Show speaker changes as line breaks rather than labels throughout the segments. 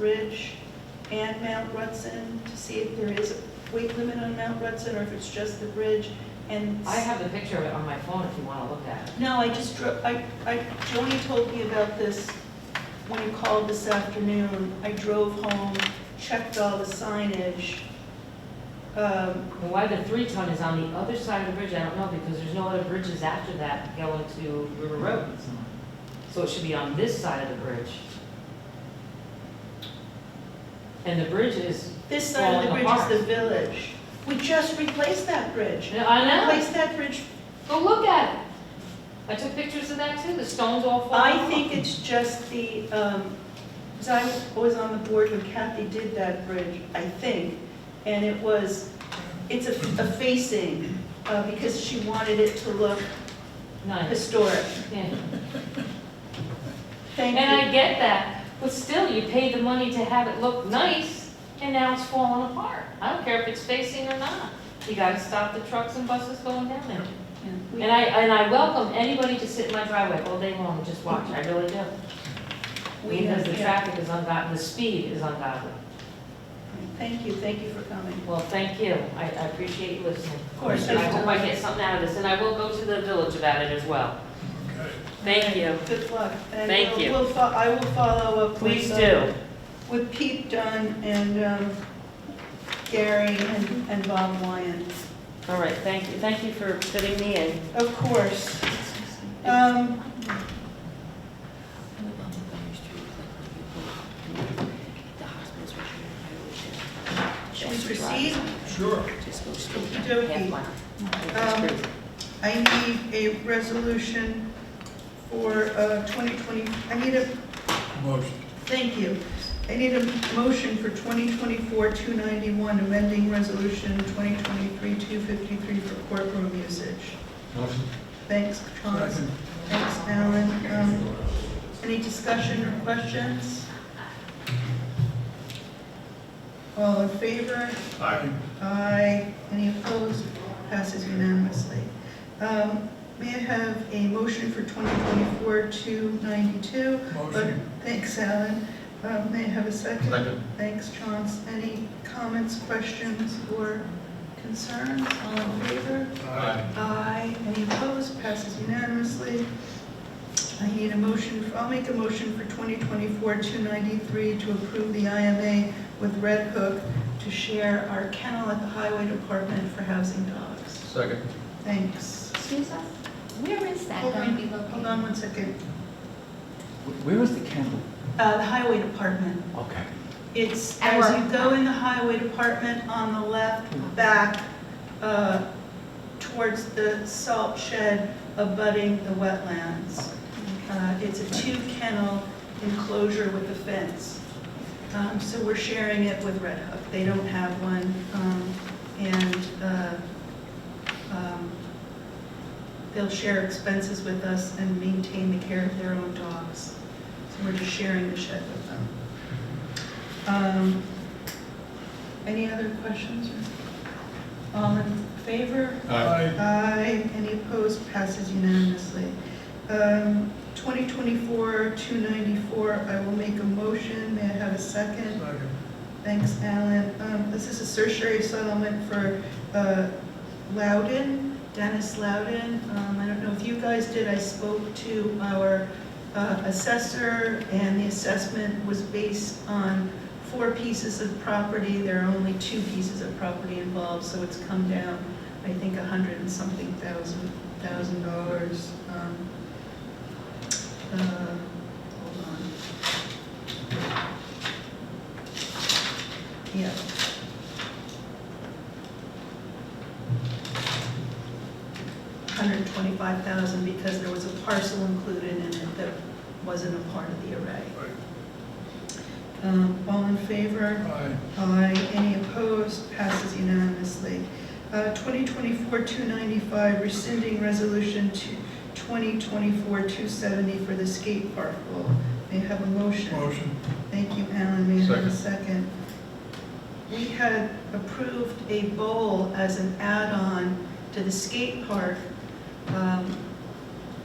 Ridge and Mount Rutson to see if there is a weight limit on Mount Rutson or if it's just the bridge and.
I have the picture of it on my phone if you want to look at it.
No, I just, dro- I, I, Joni told me about this when you called this afternoon. I drove home, checked all the signage. Um,
And why the three ton is on the other side of the bridge, I don't know, because there's no other bridges after that going to River Road. So it should be on this side of the bridge. And the bridge is,
This side of the
Well, in
bridge
the
is the village. We just replaced that bridge.
I know,
Replaced that bridge.
go look at it. I took pictures of that too, the stones all fall off.
I think it's just the, um, because I was on the board when Kathy did that bridge, I think. And it was, it's a a facing, uh, because she wanted it to look
Nice,
historic.
yeah.
Thank you.
And I get that, but still, you paid the money to have it look nice, and now it's falling apart. I don't care if it's facing or not. You gotta stop the trucks and buses going down there.
We-
And I, and I welcome anybody to sit in my driveway all day long and just watch, I really do.
We
Because the
have- yeah.
traffic is ungodly, the speed is ungodly.
Thank you, thank you for coming.
Well, thank you, I, I appreciate you listening.
Of course,
And I hope I
I
get something out of this, and I will go to the village about it as well.
Okay.
Thank you,
Good luck. And
Thank
we'll-
you.
we'll fo- I will follow up. with,
please
uh,
do.
With Pete Dunn and um, Gary and and Bob Lyon,
All right, thank you, thank you for fitting me in.
of course. Um, Should we proceed?
Sure.
Just go straight.
Okey-dokey. Um, I need a resolution for uh, 2020, I need a,
Motion.
thank you. I need a motion for 2024-291, amending resolution 2023-253 for courtroom usage.
Motion.
Thanks, Thomas.
Second.
Thanks, Alan. Um, Any discussion or questions? All in favor?
Aye.
Aye. Any opposed? Passes unanimously. Um, May I have a motion for 2024-292?
Motion.
Thanks, Alan. Um, May I have a second?
Second.
Thanks, Chance. Any comments, questions, or concerns? All in favor?
Aye.
Aye. Any opposed? Passes unanimously. I need a motion, I'll make a motion for 2024-293 to approve the IMA with Red Hook to share our kennel at the Highway Department for housing dogs.
Second.
Thanks.
Excuse us, where is that
Hold
going to be
on,
located?
hold on one second.
Where is the candle?
Uh, The Highway Department.
Okay.
It's,
At
as
work.
you go in the highway department on the left, back uh, towards the salt shed abutting the wetlands. Uh, It's a two kennel enclosure with a fence. Um, So we're sharing it with Red Hook. They don't have one. um, And uh, um, they'll share expenses with us and maintain the care of their own dogs. So we're just sharing the shed with them. Um, Any other questions? or- All in favor?
Aye.
Aye. Any opposed? Passes unanimously. Um, 2024-294, I will make a motion. May I have a second?
Second.
Thanks, Alan. Um, This is a certiorari settlement for uh, Loudon, Dennis Loudon. Um, I don't know if you guys did, I spoke to our uh, assessor, and the assessment was based on four pieces of property. There are only two pieces of property involved, so it's come down, I think, a hundred and something thousand, thousand dollars. Um, uh, Hold on. Yeah. Hundred and twenty-five thousand because there was a parcel included in it that wasn't a part of the array. Um, all in favor?
Aye.
Aye. Any opposed? Passes unanimously. Uh, 2024-295, rescinding resolution two- 2024-270 for the skate park rule. May I have a motion?
Motion.
Thank you, Alan. May I have a second? We had approved a bowl as an add-on to the skate park, um,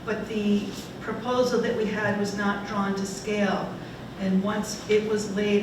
but the proposal that we had was not drawn to scale. And once it was laid